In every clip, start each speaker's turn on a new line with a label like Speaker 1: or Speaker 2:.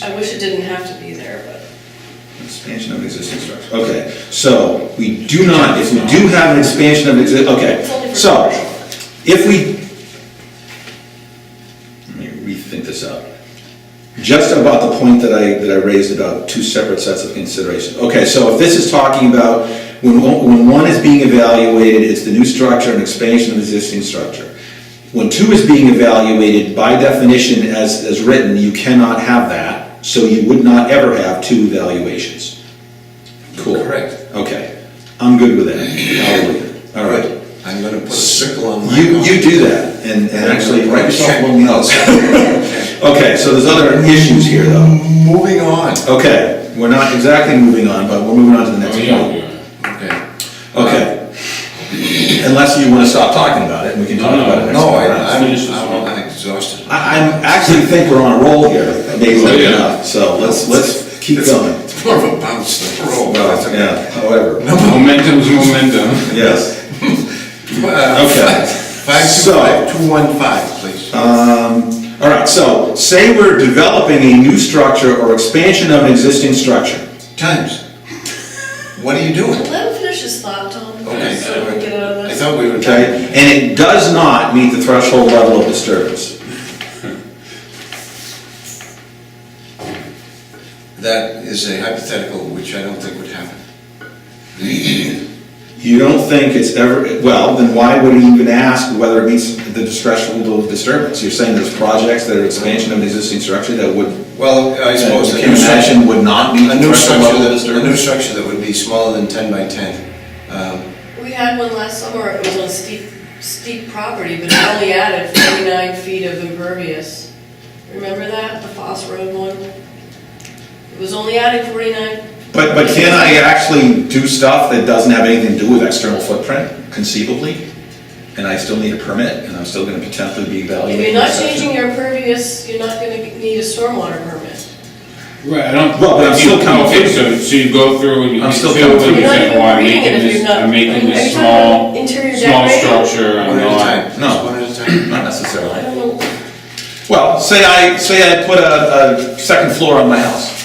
Speaker 1: I wish it didn't have to be there, but
Speaker 2: Expansion of existing structure, okay, so we do not, if we do have an expansion of exi,
Speaker 1: It's only
Speaker 2: okay,
Speaker 1: for
Speaker 2: so,
Speaker 1: commercial.
Speaker 2: if we, let me rethink this out. Just about the point that I, that I raised about two separate sets of consideration. Okay, so if this is talking about, when, one- when one is being evaluated, it's the new structure and expansion of existing structure. When two is being evaluated, by definition, as, as written, you cannot have that, so you would not ever have two evaluations. Cool.
Speaker 3: Correct.
Speaker 2: Okay, I'm good with that. I'll leave it. All right.
Speaker 3: Good. I'm gonna put a circle on Oh my.
Speaker 2: You, you do that, and, and actually write yourself a little note. Okay, so there's other issues here, though.
Speaker 3: Moving on.
Speaker 2: Okay, we're not exactly moving on, but we're moving on to the next
Speaker 4: Oh, yeah,
Speaker 2: point.
Speaker 4: yeah.
Speaker 3: Okay.
Speaker 2: Okay. Unless you wanna stop talking about it, we can talk
Speaker 4: No, no,
Speaker 2: about it next
Speaker 3: No, I,
Speaker 2: time.
Speaker 3: I'm,
Speaker 4: Finish this
Speaker 3: I'm-
Speaker 4: one.
Speaker 3: I'm exhausted.
Speaker 2: I, I'm, actually think we're on a roll here, maybe
Speaker 4: Oh, yeah.
Speaker 2: enough, so let's, let's keep
Speaker 3: It's-
Speaker 2: going.
Speaker 3: It's more of a bounce than a roll, but it's
Speaker 2: Well, yeah,
Speaker 3: okay.
Speaker 2: however,
Speaker 4: Momentum's momentum.
Speaker 2: yes.
Speaker 3: Uh,
Speaker 2: Okay.
Speaker 3: Five two
Speaker 2: So- Uh,
Speaker 3: five, two one five, please.
Speaker 2: All right, so say we're developing a new structure or expansion of an existing structure.
Speaker 3: Times. What are you doing?
Speaker 1: let him finish his thought, Tom,
Speaker 3: Okay.
Speaker 1: so
Speaker 2: uh,
Speaker 1: we can get out of
Speaker 3: I
Speaker 1: this.
Speaker 3: thought we were.
Speaker 2: okay? And it does not meet the threshold level of disturbance.
Speaker 3: That is a hypothetical, which I don't think would happen. The-
Speaker 2: You don't think it's ever, well, then why would he even ask whether it meets the threshold level of disturbance? You're saying there's projects that are expansion of an existing structure that would,
Speaker 3: Well, I
Speaker 2: that
Speaker 3: suppose.
Speaker 2: you
Speaker 3: that
Speaker 2: can imagine would not meet the
Speaker 3: A new
Speaker 2: threshold
Speaker 3: structure,
Speaker 2: level of
Speaker 3: that- a new
Speaker 2: disturbance?
Speaker 3: structure that would be smaller than ten by ten. Um,
Speaker 1: We had one last summer, it was on steep, steep property, but it only added forty-nine feet of impervious. Remember that, the Foss Road one? It was only adding forty-nine,
Speaker 2: But, but can I actually do stuff that doesn't have anything to do with external footprint conceivably? And I still need a permit and I'm still gonna potentially be
Speaker 1: if
Speaker 2: evaluated?
Speaker 1: you're not changing your impervious, you're not gonna need a stormwater permit.
Speaker 4: Right, I don't.
Speaker 2: Well, but I'm still
Speaker 4: You-
Speaker 2: coming
Speaker 4: Okay,
Speaker 2: through.
Speaker 4: so, so you go through and you.
Speaker 2: I'm
Speaker 4: you
Speaker 2: still
Speaker 4: say,
Speaker 2: coming
Speaker 4: "Well,
Speaker 2: through.
Speaker 4: you
Speaker 1: You're not
Speaker 4: said,
Speaker 1: even
Speaker 4: "Well, I'm
Speaker 1: reading it
Speaker 4: making
Speaker 1: if
Speaker 4: this-
Speaker 1: you're not-
Speaker 4: I'm making
Speaker 1: Are
Speaker 4: this
Speaker 1: you talking about
Speaker 4: small,
Speaker 1: interior
Speaker 4: small
Speaker 1: decorating?
Speaker 4: structure, I'm
Speaker 3: One at a
Speaker 4: not.
Speaker 3: time.
Speaker 2: No.
Speaker 3: Just One at a time.
Speaker 2: Not
Speaker 1: I
Speaker 2: necessarily.
Speaker 1: don't know,
Speaker 2: Well, say I, say I put a, a second floor on my house.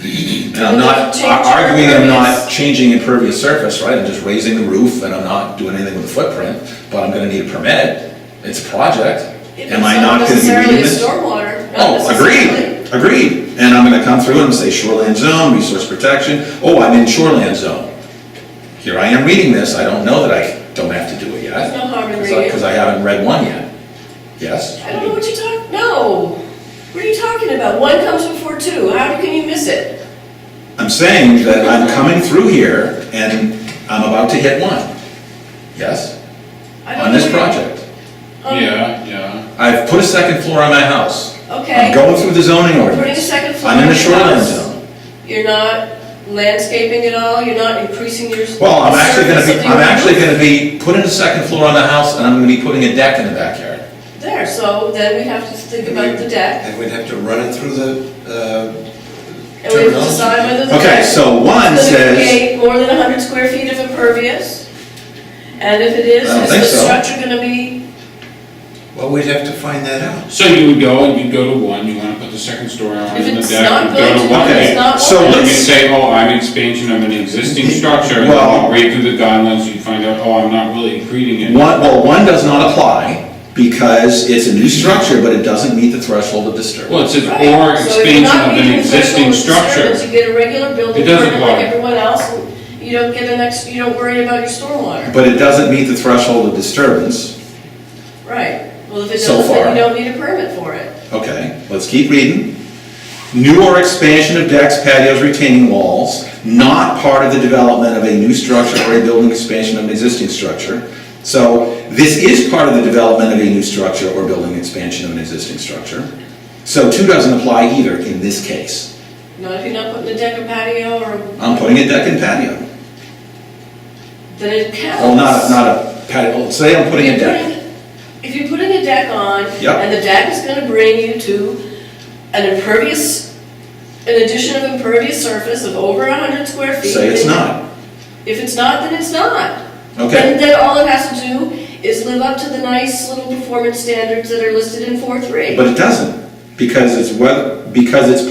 Speaker 2: And I'm not ar- arguing I'm not changing impervious surface, right? I'm just raising the roof and I'm not doing anything with the footprint, but I'm gonna need a permit. It's a project.
Speaker 1: it's
Speaker 2: Am I
Speaker 1: not
Speaker 2: not gonna be
Speaker 1: necessarily
Speaker 2: reading
Speaker 1: a
Speaker 2: this?
Speaker 1: stormwater, not
Speaker 2: Oh,
Speaker 1: necessarily.
Speaker 2: agreed, agreed. And I'm gonna come through and say shoreland zone, resource protection. Oh, I'm in shoreland zone. Here I am reading this. I don't know that I don't have to do it yet.
Speaker 1: No harm in
Speaker 2: Because I-
Speaker 1: reading.
Speaker 2: Because I haven't read one yet. Yes?
Speaker 1: I don't know what you talk, no. What are you talking about? One comes before two, how can you miss it?
Speaker 2: I'm saying that I'm coming through here and I'm about to hit one. Yes?
Speaker 1: I don't
Speaker 2: On this
Speaker 1: know what you-
Speaker 2: project.
Speaker 1: Um,
Speaker 4: Yeah, yeah.
Speaker 2: I've put a second floor on my house. I'm
Speaker 1: Okay.
Speaker 2: going through the zoning
Speaker 1: Putting a
Speaker 2: ordinance.
Speaker 1: second floor.
Speaker 2: I'm in
Speaker 1: on
Speaker 2: the
Speaker 1: your
Speaker 2: shoreline
Speaker 1: house.
Speaker 2: zone.
Speaker 1: You're not landscaping at all, you're not increasing your.
Speaker 2: Well, I'm actually gonna
Speaker 1: surface
Speaker 2: be,
Speaker 1: of
Speaker 2: I'm
Speaker 1: your
Speaker 2: actually
Speaker 1: roof.
Speaker 2: gonna be putting a second floor on the house and I'm gonna be putting a deck in the backyard.
Speaker 1: There, so then we have to think about the deck,
Speaker 3: And we'd have to run it through the, uh,
Speaker 1: and we have to decide whether the deck.
Speaker 2: Okay, so one
Speaker 1: is gonna
Speaker 2: says-
Speaker 1: create More than hundred square feet of impervious, and if it is,
Speaker 2: I don't
Speaker 1: is
Speaker 2: think
Speaker 1: the
Speaker 2: so.
Speaker 1: structure gonna be,
Speaker 3: uh, well, we'd have to find that out.
Speaker 4: So you would go and you'd go to one, you wanna put the second story on
Speaker 1: If
Speaker 4: in the
Speaker 1: it's
Speaker 4: deck,
Speaker 1: not
Speaker 4: you
Speaker 1: built,
Speaker 4: go to one.
Speaker 1: it's
Speaker 4: okay.
Speaker 1: not
Speaker 2: So
Speaker 4: You
Speaker 1: built.
Speaker 4: can
Speaker 2: let's,
Speaker 4: say, oh, I'm expansion of an existing structure, and
Speaker 2: Well-
Speaker 4: you read through the guidelines, you find out, oh, I'm not really creating it.
Speaker 2: one, well, one does not apply because it's a new structure, but it doesn't meet the threshold of disturbance.
Speaker 4: Well, it says,
Speaker 1: right?
Speaker 4: or
Speaker 1: So if you're
Speaker 4: expansion
Speaker 1: not
Speaker 4: of an
Speaker 1: meeting the threshold
Speaker 4: existing
Speaker 1: of disturbance,
Speaker 4: structure.
Speaker 1: You get a regular building
Speaker 4: It doesn't
Speaker 1: permit like
Speaker 4: apply.
Speaker 1: everyone else, and you don't get an ex, you don't worry about your stormwater.
Speaker 2: But it doesn't meet the threshold of disturbance.
Speaker 1: Right, well, if it
Speaker 2: So
Speaker 1: doesn't, then
Speaker 2: far.
Speaker 1: you don't need a permit for it.
Speaker 2: Okay, let's keep reading. New or expansion of decks, patios, retaining walls, not part of the development of a new structure or a building expansion of an existing structure. So this is part of the development of a new structure or building expansion of an existing structure. So two doesn't apply either in this case.
Speaker 1: Not if you're not putting a deck or patio or,
Speaker 2: I'm putting a deck and patio.
Speaker 1: then it counts.
Speaker 2: Well, not, a- not a patio, well, say I'm
Speaker 1: If
Speaker 2: putting
Speaker 1: you're
Speaker 2: a deck.
Speaker 1: putting- If you're putting a deck on,
Speaker 2: Yep.
Speaker 1: and the deck is gonna bring you to an impervious, an addition of impervious surface of over hundred square feet.
Speaker 2: Say it's
Speaker 1: then-
Speaker 2: not.
Speaker 1: If it's not, then it's not.
Speaker 2: Okay,
Speaker 1: And then all it has to do is live up to the nice little performance standards that are listed in four three.
Speaker 2: but it doesn't, because it's whether, because it's